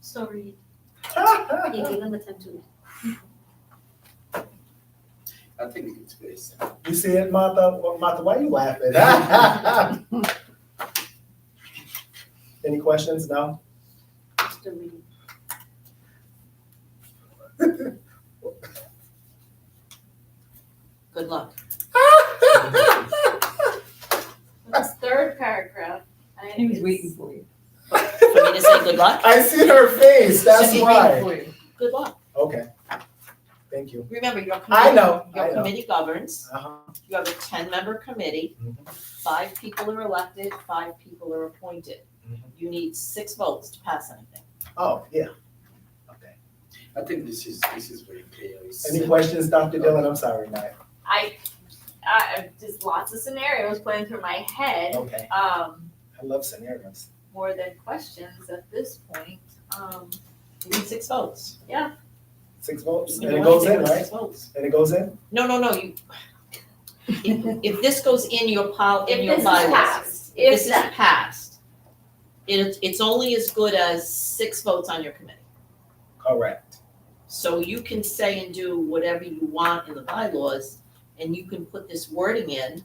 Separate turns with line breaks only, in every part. Sorry, you
I
gave him the time to.
think it's very sad.
You see it, Martha? Well, Martha, why are you laughing? Any questions? No?
just a minute.
Good luck.
This third paragraph. I-
He was
it's-
waiting for you.
For me to say good luck?
I see her face, that's
Should be waiting
why.
for you.
Good luck.
Okay. Thank you.
Remember, your
I
committee,
know, I
your
know.
committee governs.
Uh-huh.
You have a ten-member committee.
Mhm.
Five people are elected, five people are appointed.
Mhm.
You need six votes to pass anything.
Oh, yeah. Okay.
I think this is, this is very clear. It's
Any
sad.
questions, Dr. Dillon? I'm sorry, Nye.
I, I, just lots of scenarios playing through my head,
Okay.
um,
I love scenarios.
more than questions at this point. Um,
You need six votes.
Six votes,
You
and it
want
goes
to
in,
take
right?
Six votes.
And it goes in?
No, no, no, you, if, if this goes in your pol,
if
in your
this is
bylaws.
passed,
If
if
this is
that,
passed, it, it's only as good as six votes on your committee.
Correct.
So you can say and do whatever you want in the bylaws, and you can put this wording in.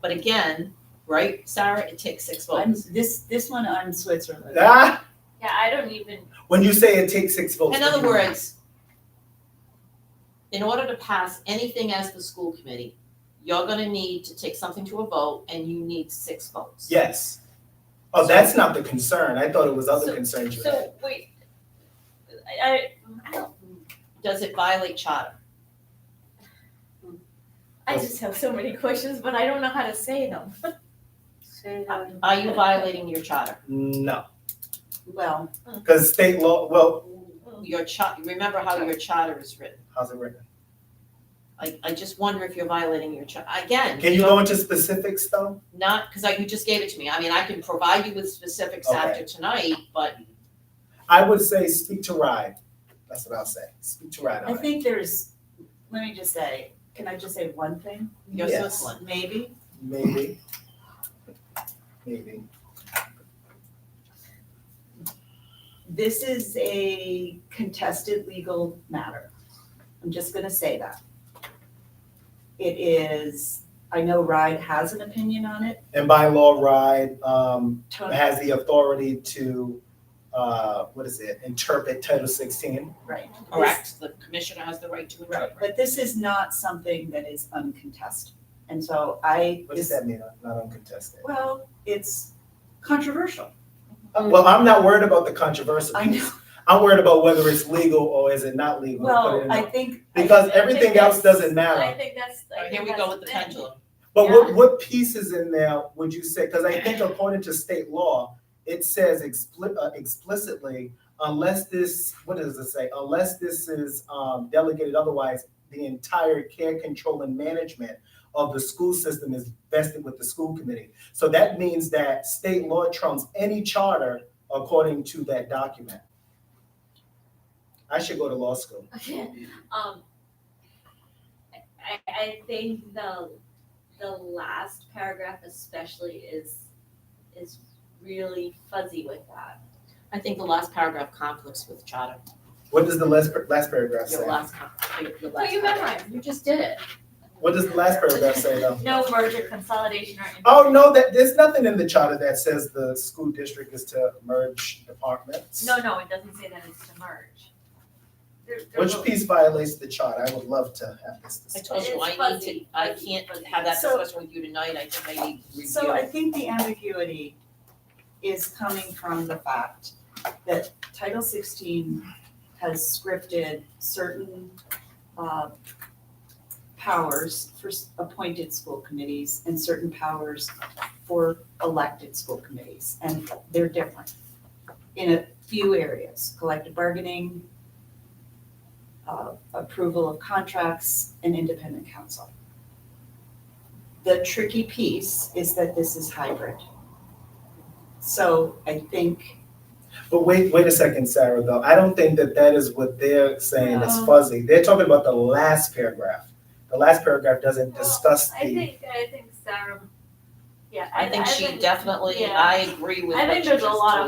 But again, right, Sarah, it takes six
I'm,
votes.
this, this one, I'm Switzerland.
Ah,
yeah, I don't even,
when you say it takes six votes.
In
what do
other
you mean?
words, in order to pass anything as the school committee, you're gonna need to take something to a vote, and you need six votes.
Yes. Oh, that's not the concern. I thought it was other
So-
concerns you had.
so, wait. I, I, I don't,
Does it violate charter?
I just have so many questions, but I don't know how to say them.
Say it
Are
out.
are you violating your charter?
No,
Well,
because state law, well,
Your char, remember how your charter is written?
how's it written?
I, I just wonder if you're violating your charter. Again,
Can you go into specifics though?
not, because like you just gave it to me. I mean, I can provide you with specifics
Okay.
after tonight, but
I would say speak to ride. That's what I'll say. Speak to ride
I
on it.
think there's, let me just say, can I just say one thing?
you're
Yes.
Switzerland.
Maybe?
Maybe. Maybe.
This is a contested legal matter. I'm just gonna say that. It is, I know RIDE has an opinion on it.
And by law, ride um,
Tony,
has the authority to, uh, what is it, interpret Title 16?
right.
Correct, the commissioner has the right to interpret.
But this is not something that is uncontested. And so I,
What does that mean, not uncontested?
well, it's controversial.
Uh, Well, I'm not worried about the controversy.
I know,
I'm worried about whether it's legal or is it not legal. to put it in
well,
the-
I think,
Because
I think
everything else
that's-
doesn't
I
matter.
think that's, I think that's
Here we go with the
thing.
pendulum.
But what, what pieces in there would you say, because I think according to state law, it says expli- uh, explicitly, unless this, what does it say? Unless this is um, delegated otherwise, the entire care, control, and management of the school system is vested with the school committee. So that means that state law trumps any charter according to that document. I should go to law school.
Okay, um, I, I think the, the last paragraph especially is, is really fuzzy with that.
I think the last paragraph conflicts with charter,
What does the last, last paragraph say?
your last, con- your- your
But
last.
you memorized, you just did it.
What does the last paragraph say though?
No merger, consolidation, or.
Oh, no, that, there's nothing in the charter that says the school district is to merge departments.
No, no, it doesn't say that it's to merge. There- there
Which
will-
piece violates the charter? I would love to have this
I
discussion.
told you,
It's
I need to,
fuzzy,
I
fuzzy,
can't
fuzzy.
have that
So-
discussion with you tonight, I think I need to review.
so I think the ambiguity is coming from the fact that Title sixteen has scripted certain, uh, powers for s- appointed school committees and certain powers for elected school committees, and they're different in a few areas, collective bargaining, uh, approval of contracts, and independent counsel. The tricky piece is that this is hybrid. So I think,
But wait, wait a second, Sarah, though. I don't think that that is what they're saying is
No.
fuzzy. They're talking about the last paragraph. The last paragraph doesn't
Well,
discuss
I
the,
think, I think Sarah, yeah, I,
I think she definitely,
yeah.
I agree with
I
what
think
you
there's a
just
lot of
told